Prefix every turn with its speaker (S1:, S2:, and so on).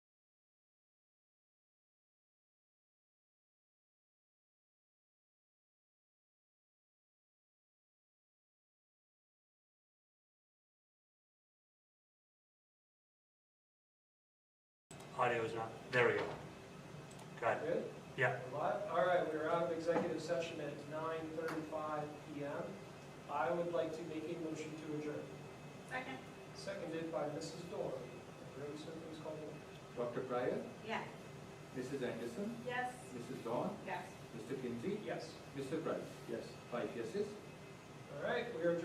S1: Audio is not, there we go. Got it.
S2: Good?
S1: Yeah.
S2: We're live? All right, we're out of executive session at 9:35 PM. I would like to make a motion to adjourn.
S3: Second?
S2: Seconded by Mrs. Dorr. Room service call.
S4: Dr. Pryor,
S3: Yes.
S4: Mrs. Anderson,
S3: Yes.
S4: Mrs. Dawn,
S3: Yes.
S4: Mr. Kinsey,
S2: Yes.
S4: Mr. Price. Yes. Five yeses.
S2: All right, we are adjourned.